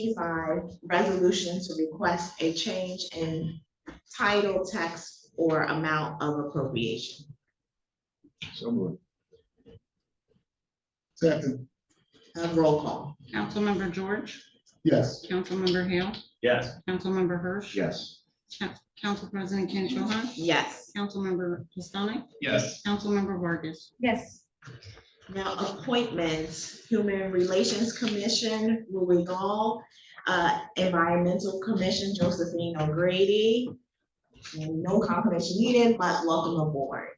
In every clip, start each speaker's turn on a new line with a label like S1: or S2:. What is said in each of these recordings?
S1: eighty-five, resolution to request a change in title, text, or amount of appropriation.
S2: So moved. Second,
S1: Uh, Roll call.
S3: Councilmember George,
S2: yes.
S3: Councilmember Hale,
S4: Yes.
S3: Councilmember Hirsch.
S2: Yes.
S3: Council President Ken Cho Han,
S1: Yes.
S3: Councilmember Pistonik,
S4: Yes.
S3: Councilmember Vargas.
S5: yes,
S1: Now, appointments, Human Relations Commission, Louis Gall, uh, Environmental Commission, Josephine O'Grady. And No confirmation needed, but welcome aboard.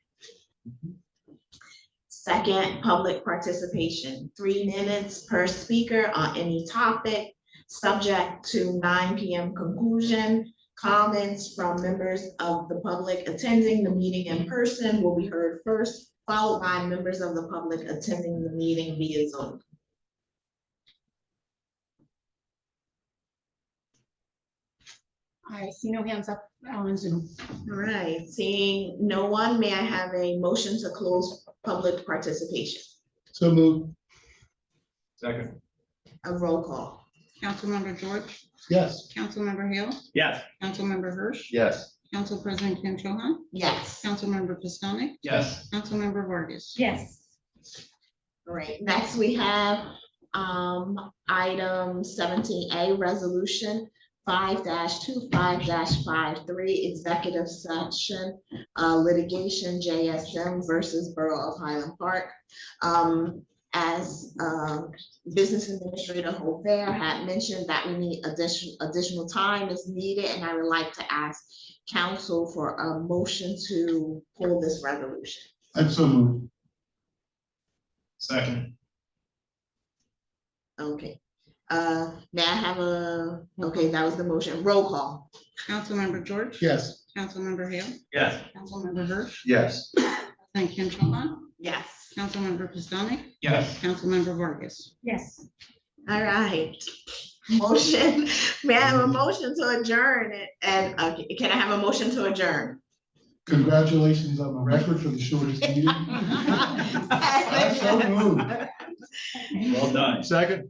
S1: Second, public participation, three minutes per speaker on any topic, subject to nine PM conclusion. Comments from members of the public attending the meeting in person will be heard first, followed by members of the public attending the meeting via Zoom.
S3: I see no hands up on Zoom.
S1: All right, seeing no one, may I have a motion to close public participation?
S2: So moved.
S4: Second.
S1: A roll call.
S3: Councilmember George,
S2: Yes.
S3: Councilmember Hale,
S4: Yes.
S3: Councilmember Hirsch,
S2: Yes.
S3: Council President Ken Cho Han,
S1: Yes.
S3: Councilmember Pistonik,
S4: Yes.
S3: Councilmember Vargas.
S5: yes.
S1: All right, next we have um item seventeen A, resolution five dash two, five dash five, three, executive session uh litigation JSM versus Borough of Highland Park. Um, as uh Business Administrator Hobert had mentioned that we need additional additional time is needed, and I would like to ask council for a motion to pull this resolution.
S2: I'm so moved.
S4: Second.
S1: Okay, uh, may I have a, okay, that was the motion, roll call,
S3: Councilmember George.
S2: Yes.
S3: Councilmember Hale,
S4: Yes.
S3: Councilmember Hirsch,
S2: Yes.
S3: President Ken Cho Han,
S1: yes.
S3: Councilmember Pistonik,
S4: Yes.
S3: Councilmember Vargas.
S5: Yes,
S1: All right, motion, may I have a motion to adjourn it, and, uh, can I have a motion to adjourn?
S2: Congratulations on the record for the shortest meeting. I'm so moved.
S4: Well done.
S2: Second.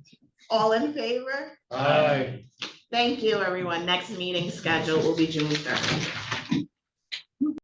S1: All in favor?
S2: Aye.
S1: Thank you, everyone, next meeting scheduled will be June third.